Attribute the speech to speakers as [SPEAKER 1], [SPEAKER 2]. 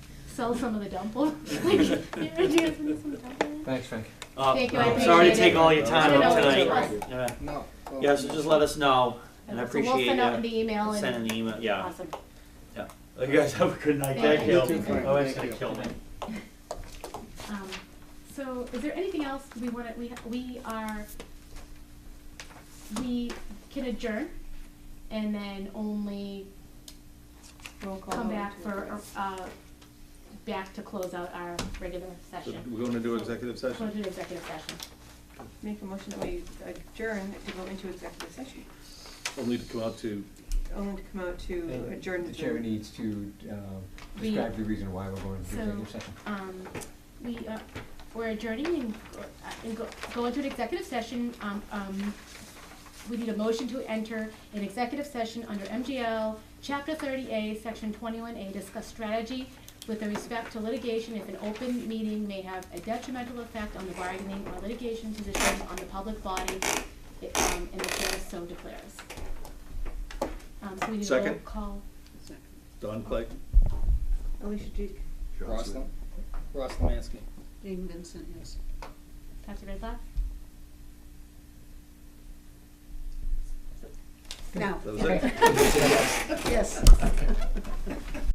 [SPEAKER 1] sell some of the dumplings. Like, you ever do some dumplings?
[SPEAKER 2] Thanks, Frank.
[SPEAKER 3] Uh,
[SPEAKER 1] Thank you, I appreciate
[SPEAKER 3] Sorry
[SPEAKER 1] it.
[SPEAKER 3] to take all your time
[SPEAKER 1] No,
[SPEAKER 3] up
[SPEAKER 1] no, it's
[SPEAKER 3] tonight.
[SPEAKER 1] fine.
[SPEAKER 3] Yeah.
[SPEAKER 2] No. well,
[SPEAKER 3] Yeah, so just let us know, and I
[SPEAKER 1] So we'll
[SPEAKER 3] appreciate
[SPEAKER 1] send out
[SPEAKER 3] you
[SPEAKER 1] the email and,
[SPEAKER 3] sending the email, yeah.
[SPEAKER 1] awesome.
[SPEAKER 3] You guys have a good night,
[SPEAKER 1] Thank
[SPEAKER 3] thank
[SPEAKER 1] you.
[SPEAKER 3] you.
[SPEAKER 1] You too, Frank.
[SPEAKER 3] Oh, it's
[SPEAKER 2] Thank
[SPEAKER 3] gonna kill me.
[SPEAKER 1] Um, so is there anything else we wanna, we, we are, we can adjourn and then only
[SPEAKER 4] Roll call.
[SPEAKER 1] come back for, uh, back to close out our regular
[SPEAKER 5] So
[SPEAKER 1] session.
[SPEAKER 5] We're going to do executive
[SPEAKER 1] Go
[SPEAKER 5] session?
[SPEAKER 1] to executive session.
[SPEAKER 4] Make a motion that we adjourn to go into executive session,
[SPEAKER 5] Only to come out to,
[SPEAKER 4] only to come out to
[SPEAKER 2] And
[SPEAKER 4] adjourn.
[SPEAKER 2] The chair needs to uh,
[SPEAKER 1] We-
[SPEAKER 2] describe the reason why we're going to
[SPEAKER 1] So-
[SPEAKER 2] executive session.
[SPEAKER 1] um, we, uh, we're adjourning and, uh, and go, go into an executive session, um, um, we need a motion to enter an executive session under MGL, chapter thirty A, section twenty-one A, discuss strategy with respect to litigation if an open meeting may have a detrimental effect on the bargaining or litigation position on the public body, it, um, and the chair so declares. Um, so we need a roll
[SPEAKER 5] Second.
[SPEAKER 1] call.
[SPEAKER 5] Don Clay.
[SPEAKER 4] Alicia Duke.
[SPEAKER 6] Roslin? Ross Lemansky.
[SPEAKER 7] Dean Vincent, yes.
[SPEAKER 1] Dr. Ridloff?
[SPEAKER 7] No.
[SPEAKER 5] That was it.
[SPEAKER 7] Yes.